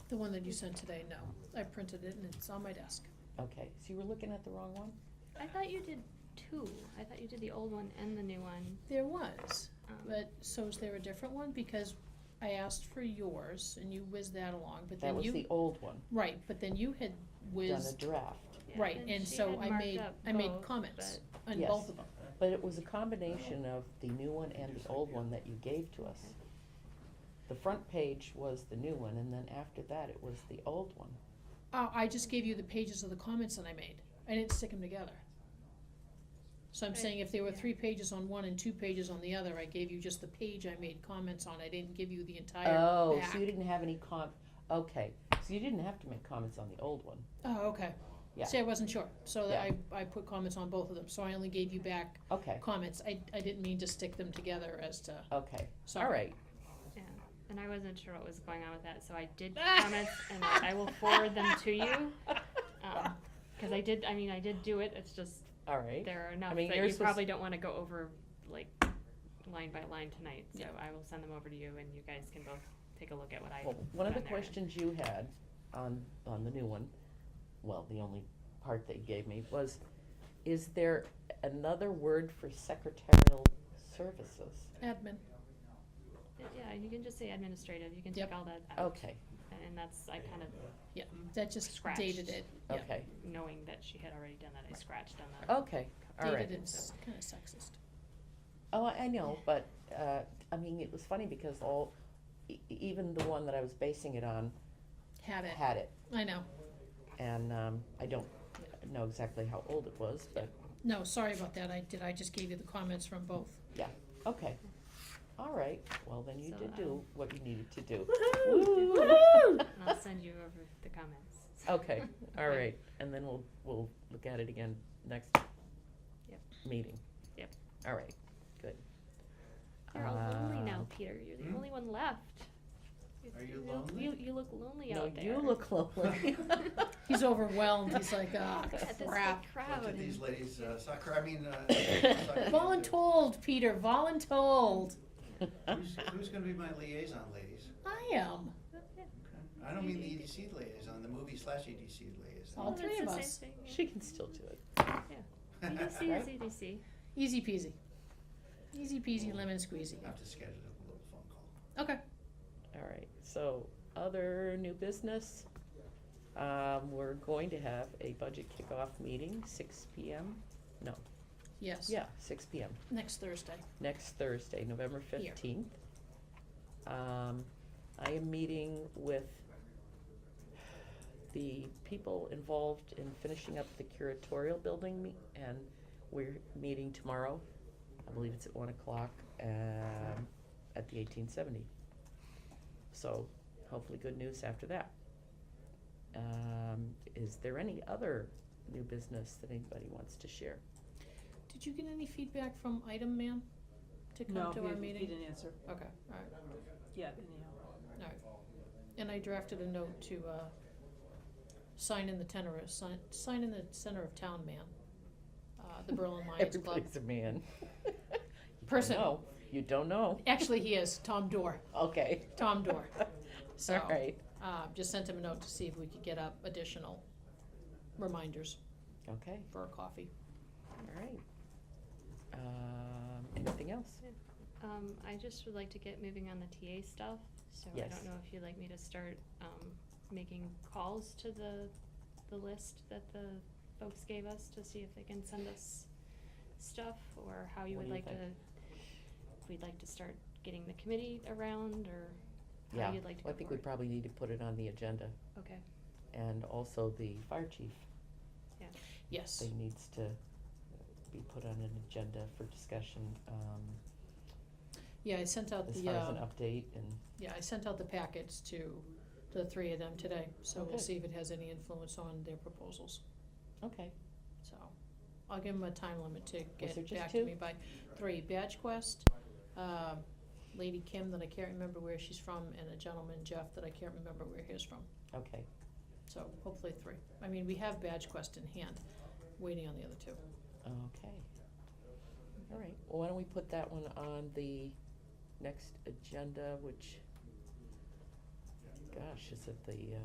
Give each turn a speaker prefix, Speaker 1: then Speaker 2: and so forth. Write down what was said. Speaker 1: The one that you sent today, no. I printed it and it's on my desk.
Speaker 2: Okay, so you were looking at the wrong one?
Speaker 3: I thought you did two. I thought you did the old one and the new one.
Speaker 1: There was,
Speaker 3: Um,
Speaker 1: but so is there a different one? Because I asked for yours and you whizzed that along, but
Speaker 2: That
Speaker 1: then
Speaker 2: was
Speaker 1: you,
Speaker 2: the old one,
Speaker 1: right, but then you had
Speaker 2: done a
Speaker 1: whizzed,
Speaker 2: draft.
Speaker 3: yeah,
Speaker 1: right, and
Speaker 3: she
Speaker 1: so
Speaker 3: had
Speaker 1: I
Speaker 3: marked
Speaker 1: made,
Speaker 3: up
Speaker 1: I made
Speaker 3: both,
Speaker 1: comments on
Speaker 2: Yes.
Speaker 1: both of them.
Speaker 2: But it was a combination of the new one and the old one that you gave to us.
Speaker 3: Okay.
Speaker 2: The front page was the new one, and then after that, it was the old one.
Speaker 1: Uh, I just gave you the pages of the comments that I made. I didn't stick them together. So I'm
Speaker 3: Right,
Speaker 1: saying if there were
Speaker 3: yeah.
Speaker 1: three pages on one and two pages on the other, I gave you just the page I made comments on. I didn't give you the entire
Speaker 2: Oh,
Speaker 1: back.
Speaker 2: so you didn't have any com, okay, so you didn't have to make comments on the old one.
Speaker 1: Oh, okay.
Speaker 2: Yeah.
Speaker 1: See, I wasn't sure, so that I, I put comments on both of them, so I only gave you back
Speaker 2: Okay,
Speaker 1: comments, I, I didn't mean to stick them together as to,
Speaker 2: okay, all
Speaker 1: sorry.
Speaker 2: right,
Speaker 3: But, yeah. And I wasn't sure what was going on with that, so I did comments, and I will forward them to you. Because I did, I mean, I did do it. It's just
Speaker 2: all right.
Speaker 3: there are enough
Speaker 2: mean,
Speaker 3: that
Speaker 2: yours
Speaker 3: you
Speaker 2: was-
Speaker 3: probably don't want to go over like line by line tonight. So
Speaker 1: Yeah.
Speaker 3: I will send them over to you, and you guys can both take a look at what I.
Speaker 2: Well, one of the
Speaker 3: put on there.
Speaker 2: questions you had on, on the new one, well, the only part that you gave me was, is there another word for secretarial services?
Speaker 1: Admin,
Speaker 3: Yeah, you can just say administrative. You can
Speaker 1: Yep.
Speaker 3: take all that out,
Speaker 2: Okay,
Speaker 3: and that's I kind of
Speaker 1: that just
Speaker 3: Scratched.
Speaker 1: dated it, Yeah.
Speaker 2: okay,
Speaker 3: knowing that she had already done that. I scratched on the.
Speaker 1: Oh.
Speaker 2: okay, all right.
Speaker 1: dated it's kinda sexist.
Speaker 2: Oh, I I know, but, uh, I mean, it was funny because all, e- even the one that I was basing it on
Speaker 1: Had it,
Speaker 2: had it.
Speaker 1: I know,
Speaker 2: And, um, I don't know exactly how old it was, but,
Speaker 1: no, sorry about that, I did, I just gave you the comments from both.
Speaker 2: okay. All right, well, then you
Speaker 3: So,
Speaker 2: did
Speaker 3: um,
Speaker 2: do what you needed to do.
Speaker 3: Woohoo!
Speaker 2: Woo!
Speaker 3: And I'll send you over the comments.
Speaker 2: Okay, all right, and then we'll, we'll look at it again next
Speaker 3: Yep.
Speaker 2: meeting.
Speaker 3: Yep.
Speaker 2: All right, good.
Speaker 3: You're all
Speaker 2: Uh,
Speaker 3: lonely now, Peter. You're the
Speaker 4: Hmm?
Speaker 3: only one left.
Speaker 4: Are you
Speaker 3: look-
Speaker 4: lonely?
Speaker 3: You, you look lonely
Speaker 2: No,
Speaker 3: out there.
Speaker 2: you look lonely.
Speaker 1: He's overwhelmed, he's like, ah,
Speaker 3: Look at this
Speaker 1: crap.
Speaker 3: big
Speaker 4: What
Speaker 3: crowd.
Speaker 4: did
Speaker 3: and-
Speaker 4: these ladies, uh, soccer, I mean, uh. soccer
Speaker 1: Voluntold, Peter, voluntold,
Speaker 4: do? Who's, who's gonna be my liaison ladies?
Speaker 1: I am,
Speaker 3: Okay.
Speaker 4: I don't mean the EDC liaison, the movie slash EDC liaison.
Speaker 1: all
Speaker 3: Well,
Speaker 1: three
Speaker 3: it's
Speaker 1: of
Speaker 3: the same
Speaker 1: us,
Speaker 3: thing, yeah.
Speaker 2: She can still do it.
Speaker 3: EDC E is EDC.
Speaker 1: easy peasy. Easy peasy lemon squeezy,
Speaker 4: Have to schedule a little phone call.
Speaker 1: okay,
Speaker 2: All right, so other new business. Um, we're going to have a budget kickoff meeting, six P M.
Speaker 1: yes,
Speaker 2: Yeah, six P M,
Speaker 1: next Thursday,
Speaker 2: next Thursday, November
Speaker 1: Here.
Speaker 2: fifteenth. Um, I am meeting with the people involved in finishing up the curatorial building me- and we're meeting tomorrow. I believe it's at one o'clock, um, at the eighteen seventy. So hopefully good news after that. Um, is there any other new business that anybody wants to share?
Speaker 1: did you get any feedback from item man to come
Speaker 5: No,
Speaker 1: to our
Speaker 5: he,
Speaker 1: meeting?
Speaker 5: he didn't answer
Speaker 1: Okay, alright.
Speaker 5: yet anyhow.
Speaker 1: And I drafted a note to, uh, sign in the tenor, sign, sign in the center of town man, uh, the Berlin Lions Club.
Speaker 2: Everybody's a man. You don't
Speaker 1: Person.
Speaker 5: Oh.
Speaker 2: know. You don't know,
Speaker 1: Actually, he is, Tom Dorr,
Speaker 2: okay.
Speaker 1: Tom Dorr. So,
Speaker 2: All right,
Speaker 1: uh, just sent him a note to see if we could get up additional reminders
Speaker 2: okay,
Speaker 1: for a coffee.
Speaker 2: all right. Um, anything else?
Speaker 3: Um, I just would like to get moving on the TA stuff, so I
Speaker 2: Yes.
Speaker 3: don't know if you'd like me to start, um, making calls to the, the list that the folks gave us to see if they can send us stuff, or how you
Speaker 2: What
Speaker 3: would
Speaker 2: do
Speaker 3: like
Speaker 2: you
Speaker 3: to, if we'd like to start getting the committee around, or
Speaker 2: Yeah,
Speaker 3: how you'd like to go
Speaker 2: Well, I think we
Speaker 3: forward.
Speaker 2: probably need to put it on the agenda,
Speaker 3: Okay,
Speaker 2: and also the fire chief
Speaker 1: Yes,
Speaker 2: thing needs to be put on an agenda for discussion, um,
Speaker 1: yeah, I sent out
Speaker 2: as
Speaker 1: the,
Speaker 2: far as
Speaker 1: uh,
Speaker 2: an update and,
Speaker 1: yeah, I sent out the packets to the three of them today, so
Speaker 2: Okay.
Speaker 1: we'll see if it has any influence on their proposals.
Speaker 2: okay,
Speaker 1: So, I'll give them a time limit to
Speaker 2: there
Speaker 1: get
Speaker 2: just
Speaker 1: back to
Speaker 2: two?
Speaker 1: me by three. Badge Quest, um, Lady Kim that I can't remember where she's from, and a gentleman Jeff that I can't remember where he's from.
Speaker 2: okay,
Speaker 1: So hopefully three. I mean, we have Badge Quest in hand, waiting on the other two.
Speaker 2: okay. All right, well, why don't we put that one on the next agenda, which, gosh, is it the, uh,